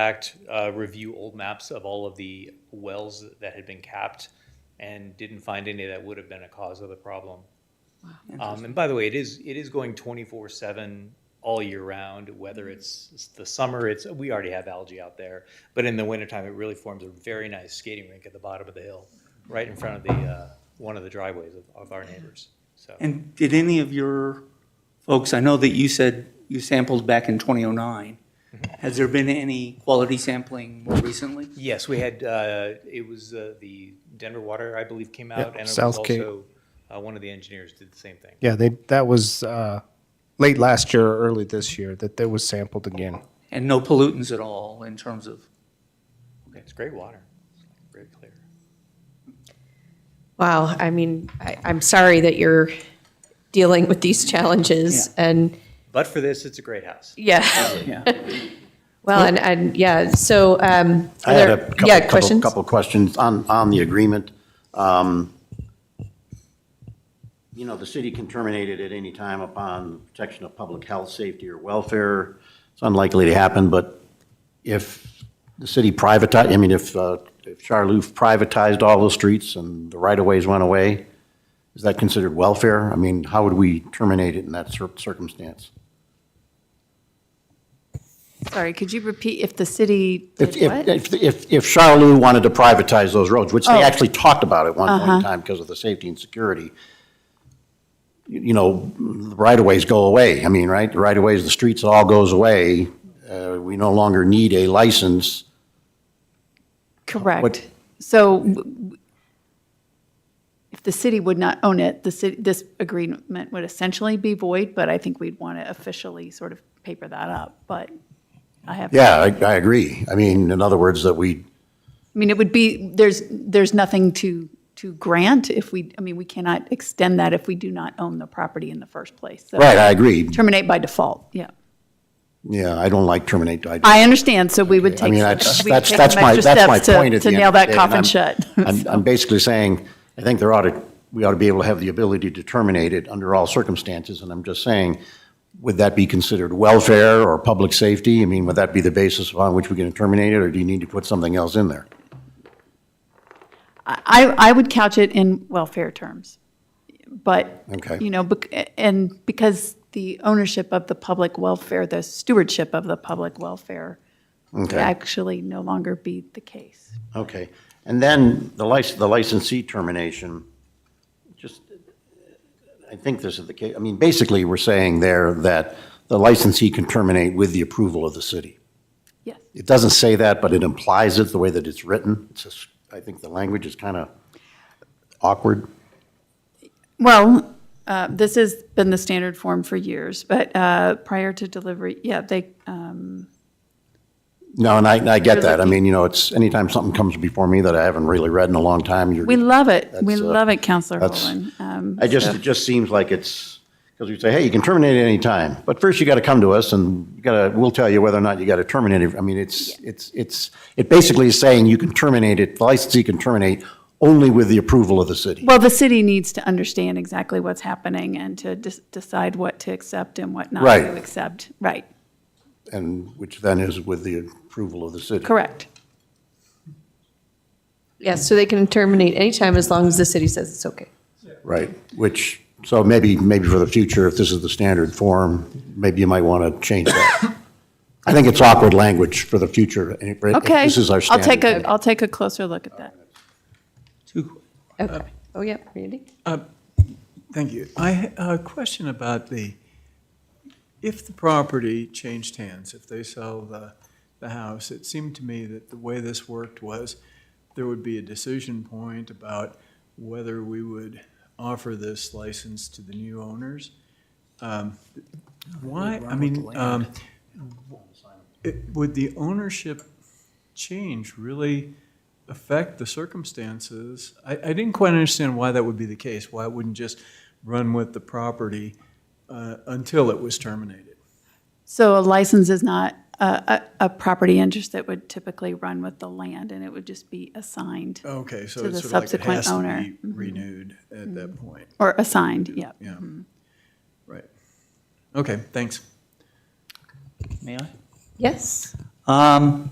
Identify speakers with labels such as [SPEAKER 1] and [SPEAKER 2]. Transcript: [SPEAKER 1] fact, uh, review old maps of all of the wells that had been capped and didn't find any that would have been a cause of the problem. Um, and by the way, it is, it is going twenty-four seven all year round, whether it's it's the summer, it's, we already have algae out there. But in the wintertime, it really forms a very nice skating rink at the bottom of the hill, right in front of the, uh, one of the driveways of, of our neighbors, so.
[SPEAKER 2] And did any of your folks, I know that you said you sampled back in 2009. Has there been any quality sampling more recently?
[SPEAKER 1] Yes, we had, uh, it was uh, the Denver Water, I believe, came out. and it was
[SPEAKER 3] South Cape.
[SPEAKER 1] also, uh, One of the engineers did the same thing.
[SPEAKER 3] Yeah, they, that was uh, late last year or early this year that that was sampled again.
[SPEAKER 2] And no pollutants at all in terms of,
[SPEAKER 1] It's great water, very clear.
[SPEAKER 4] Wow, I mean, I, I'm sorry that you're dealing with these challenges and,
[SPEAKER 1] But for this, it's a great house.
[SPEAKER 4] yeah,
[SPEAKER 2] yeah.
[SPEAKER 4] well, and, and, yeah, so, um.
[SPEAKER 5] I
[SPEAKER 4] are
[SPEAKER 5] had a
[SPEAKER 4] there-
[SPEAKER 5] couple-
[SPEAKER 4] Yeah,
[SPEAKER 5] couple-
[SPEAKER 4] questions?
[SPEAKER 5] Couple of questions on, on the agreement. Um, You know, the city can terminate it at any time upon protection of public health, safety, or welfare. It's unlikely to happen, but if the city privatized, I mean, if, uh, if Charlevoix privatized all the streets and the right-of-ways went away, is that considered welfare? I mean, how would we terminate it in that cir- circumstance?
[SPEAKER 6] Sorry, could you repeat if the city did
[SPEAKER 5] If,
[SPEAKER 6] what?
[SPEAKER 5] if, if- if, if Charlevoix wanted to privatize those roads, which they
[SPEAKER 6] Oh. Uh-huh.
[SPEAKER 5] actually talked about at one point in time because of the safety and security, you you know, the right-of-ways go away. I mean, right, the right-of-ways, the streets, it all goes away. Uh, we no longer need a license. what-
[SPEAKER 6] Correct. So w- w- if the city would not own it, the city, this agreement would essentially be void, but I think we'd want to officially sort of paper that up, but I have.
[SPEAKER 5] Yeah, I, I agree. I mean, in other words, that we,
[SPEAKER 6] I mean, it would be, there's, there's nothing to, to grant if we, I mean, we cannot extend that if we do not own the property in the first place. So
[SPEAKER 5] right, I agree.
[SPEAKER 6] Terminate by default, yeah.
[SPEAKER 5] Yeah, I don't like terminate. I-
[SPEAKER 6] I understand, so we would
[SPEAKER 5] I
[SPEAKER 6] take.
[SPEAKER 5] mean,
[SPEAKER 6] some-
[SPEAKER 5] that's,
[SPEAKER 6] we would
[SPEAKER 5] that's,
[SPEAKER 6] take
[SPEAKER 5] that's
[SPEAKER 6] some
[SPEAKER 5] my,
[SPEAKER 6] extra
[SPEAKER 5] that's my
[SPEAKER 6] steps to-
[SPEAKER 5] point at the
[SPEAKER 6] To
[SPEAKER 5] end.
[SPEAKER 6] nail
[SPEAKER 5] of the
[SPEAKER 6] that
[SPEAKER 5] day,
[SPEAKER 6] cough
[SPEAKER 5] I'm-
[SPEAKER 6] and shut.
[SPEAKER 5] I'm, I'm basically saying, I think there ought to, we ought to be able to have the ability to terminate it under all circumstances, and I'm just saying, would that be considered welfare or public safety? I mean, would that be the basis upon which we're going to terminate it, or do you need to put something else in there?
[SPEAKER 6] I, I would couch it in welfare terms, but,
[SPEAKER 5] Okay.
[SPEAKER 6] you know, bec- and because the ownership of the public welfare, the stewardship of the public welfare would
[SPEAKER 5] Okay.
[SPEAKER 6] actually no longer be the case.
[SPEAKER 5] Okay, and then the license, the licensee termination, just, I think this is the case, I mean, basically, we're saying there that the licensee can terminate with the approval of the city.
[SPEAKER 6] Yes.
[SPEAKER 5] It doesn't say that, but it implies it the way that it's written. It's just, I think the language is kind of awkward.
[SPEAKER 6] Well, uh, this has been the standard form for years, but uh, prior to delivery, yeah, they, um,
[SPEAKER 5] No, and I, I get that. I mean, you know, it's, anytime something comes before me that I haven't really read in a long time, you're.
[SPEAKER 6] we love it. We
[SPEAKER 5] That's, uh,
[SPEAKER 6] love it, Counselor
[SPEAKER 5] that's-
[SPEAKER 6] Holden. Um,
[SPEAKER 5] I just, it just seems like it's, because we say, hey, you can terminate at any time, but first you got to come to us and you got to, we'll tell you whether or not you got to terminate it. I mean, it's, it's, it's, it basically is saying you can terminate it, the licensee can terminate only with the approval of the city.
[SPEAKER 6] Well, the city needs to understand exactly what's happening and to dis- decide what to accept and what not
[SPEAKER 5] Right.
[SPEAKER 6] to accept. Right,
[SPEAKER 5] And, which then is with the approval of the city.
[SPEAKER 6] correct.
[SPEAKER 4] Yeah, so they can terminate anytime as long as the city says it's okay.
[SPEAKER 5] Right, which, so maybe, maybe for the future, if this is the standard form, maybe you might want to change that. I think it's awkward language for the future. if- if
[SPEAKER 6] Okay.
[SPEAKER 5] This is our standard.
[SPEAKER 6] I'll take a, I'll take a closer look at that.
[SPEAKER 7] Two,
[SPEAKER 4] Okay, oh, yeah, Randy?
[SPEAKER 7] thank you. I ha- a question about the, if the property changed hands, if they sell the, the house, it seemed to me that the way this worked was there would be a decision point about whether we would offer this license to the new owners. Um, Why, I mean, um, it- would the ownership change really affect the circumstances? I, I didn't quite understand why that would be the case, why it wouldn't just run with the property uh, until it was terminated.
[SPEAKER 6] So a license is not a, a, a property interest that would typically run with the land and it would just be assigned
[SPEAKER 7] Okay, so
[SPEAKER 6] To the
[SPEAKER 7] it's sort of like it
[SPEAKER 6] subsequent
[SPEAKER 7] has to
[SPEAKER 6] owner.
[SPEAKER 7] be renewed at that point,
[SPEAKER 6] or assigned, yeah.
[SPEAKER 7] yeah. Right. Okay, thanks.
[SPEAKER 2] May I?
[SPEAKER 4] Yes?
[SPEAKER 2] Um,